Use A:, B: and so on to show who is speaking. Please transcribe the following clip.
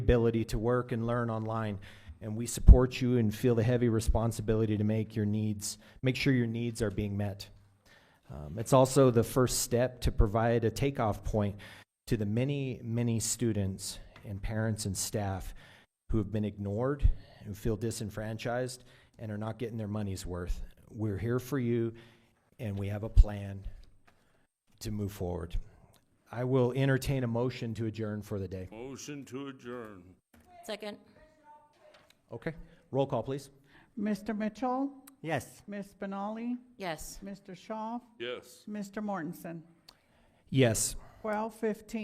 A: ability to work and learn online. And we support you and feel the heavy responsibility to make your needs, make sure your needs are being met. Um, it's also the first step to provide a takeoff point to the many, many students and parents and staff who have been ignored, who feel disenfranchised, and are not getting their money's worth. We're here for you, and we have a plan to move forward. I will entertain a motion to adjourn for the day.
B: Motion to adjourn.
C: Second.
A: Okay, roll call, please.
D: Mr. Mitchell,
E: Yes.
D: Ms. Benali,
C: Yes.
D: Mr. Shaw,
B: Yes.
D: Mr. Mortensen.
A: Yes.
D: Twelve fifteen.